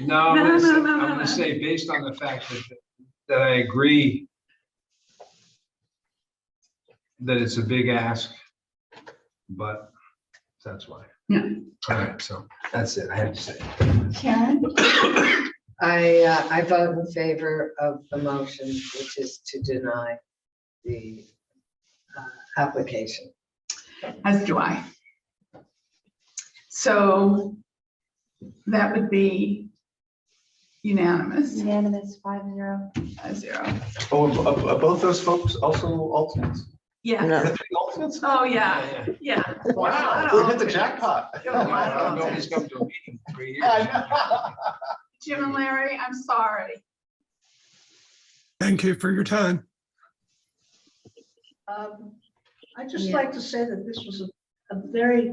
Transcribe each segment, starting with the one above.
No, I'm No, gonna say- no, no, I'm no, no. gonna say, based on the fact that, that I agree that it's a big ask, but that's why. Yeah. All right, so that's it. I had to say. Karen? I, uh, I vote in favor of the motion, which is to deny the uh, application. As do I. So that would be unanimous, Unanimous, five zero. five zero. Oh, are- are are both those folks also alternates? Yeah, Are they alternates? oh, yeah, yeah. Wow, we hit the jackpot. Wow. Nobody's come to a meeting in three years. I know. Jim and Larry, I'm sorry. Thank you for your time. Um, I'd just Yeah. like to say that this was a- a very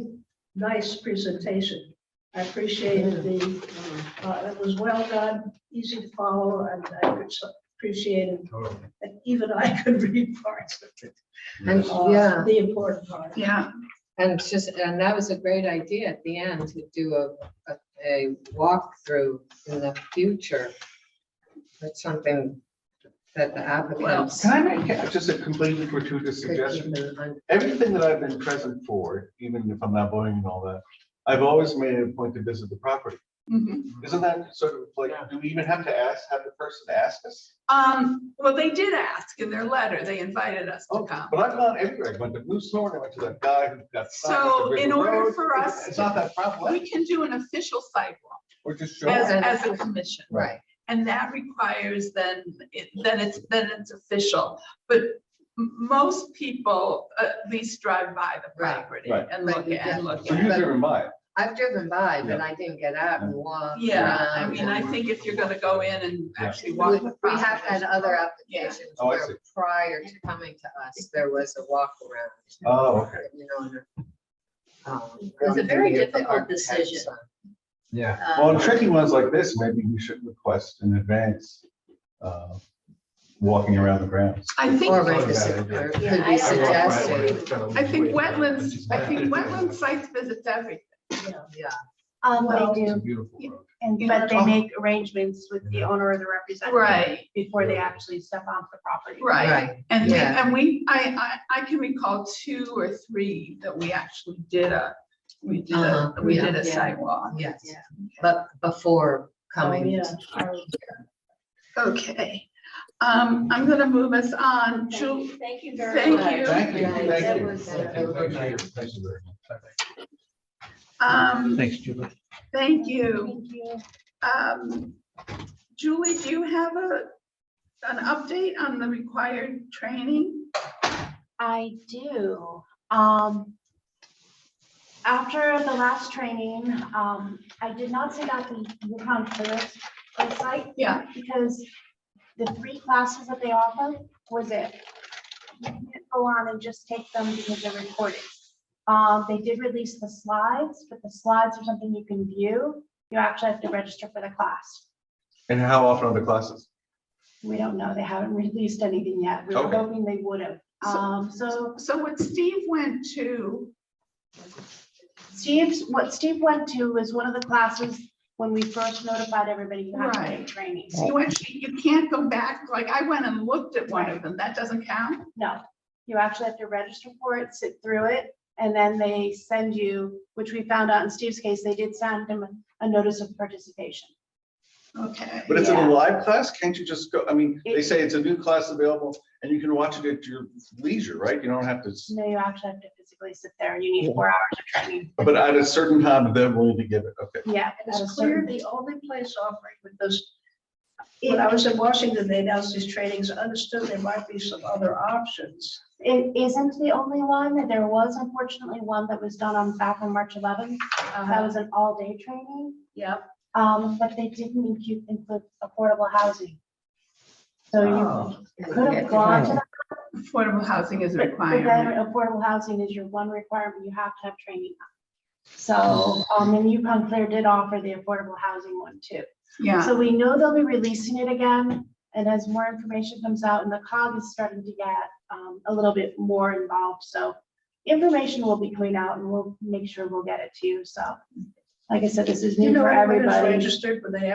nice presentation. I appreciated the, uh, it was well done, easy to follow, and I could s- appreciate it. Totally. And even I could read parts of it, And, uh, yeah, the important part. Yeah, and it's just, and that was a great idea at the end to do a, a, a walkthrough in the future. That's something that the applicant Yes. Can I make a- just a completely gratuitous could keep suggestion? in mind. Everything that I've been present for, even if I'm not voting and all that, I've always made it a point to visit the property. mhm. Isn't that sort of like, do we even have to ask, have the person ask us? Um, well, they did ask in their letter, they invited us to Oh, come. But I've gone everywhere. I went to Blue Thorn, I went to that guy who got. signed at the So in River order Road. for us, It's not that problem. we can do an official sidewalk We're just as, showing. Yes. as a commission. Right, And that requires then, it- then it's, then it's official. But m- most people at least drive by the Right. property Right. and look Right, at, and look So at. you're driven by it. I've driven by, but I didn't get out and walk. Yeah, I around mean, I think if you're gonna go in and Yeah. actually We walk the we property. have had other applications Oh, I where see. prior to coming to us, there was a walk around. Oh, okay. You know. and, um, was a very maybe the difficult architects, decision. uh, Yeah. Well, on tricky ones like this, maybe we should request in advance, uh, walking around the grounds. I think, Or Thought make a about su- it, yeah. or Yeah, could I- be I walked by suggested, I think wetlands, I think wetland sites visits everything. yeah. Um, Well, they It's a do, beautiful road. you And, know, but they make arrangements with the owner or the representative. Right. Before they actually step off the property. Right, Right, and, Yeah. and we, I, I, I can recall two or three that we actually did a, we did a, Uh-huh, we yeah. did a sidewalk. yes, Yeah. but before oh, coming. yeah, our- Okay, um, I'm gonna move us on, Ju- Thank you very much. Thank you, That thank you. was, uh, Thank you. Good Thank you. um, Thanks, Julie. thank you. Thank you. Um, Julie, do you have a, an update on the required training? I do. Um, after the last training, um, I did not send out the Yukon Forest website Yeah, because the three classes that they offer was it. You can't go on and just take them because they're recorded. Um, they did release the slides, but the slides are something you can view. You actually have to register for the class. And how often are the classes? We don't know. They haven't released anything yet. We were Okay. hoping they would have. Um, so so what Steve went to, Steve's, what Steve went to was one of the classes when we first notified everybody you have to Right. take training. you actually, you can't go back, like, I went and looked at one of them, that doesn't count? No, you actually have to register for it, sit through it, and then they send you, which we found out in Steve's case, they did send him a notice of participation. Okay. But it's in Yeah. a live class, can't you just go, I mean, they say it's a new class available and you can watch it at your leisure, right? You don't have to, s- No, you actually have to physically sit there and you need four hours of training. but at a certain time, they're willing to give it, okay. Yeah. And at a it's clear certain- the only place offering with those, when I was in Washington, they announced these trainings, I understood there might be some other options. It isn't the only one. There was unfortunately one that was done on back on March eleventh. Uh-huh. That was an all-day training. Yeah, Um, but they didn't include, include affordable housing. So you could have Oh. Yeah. gone to that, Uh, Affordable housing is a but then requirement. affordable housing is your one requirement, you have to have training. So, um, and Yukon Clear did offer the affordable housing one too. Yeah, So we know they'll be releasing it again, and as more information comes out, and the cog is starting to get, um, a little bit more involved, so information will be coming out, and we'll make sure we'll get it to you, so. Like I said, this is you new know, for everybody's everybody. registered, but they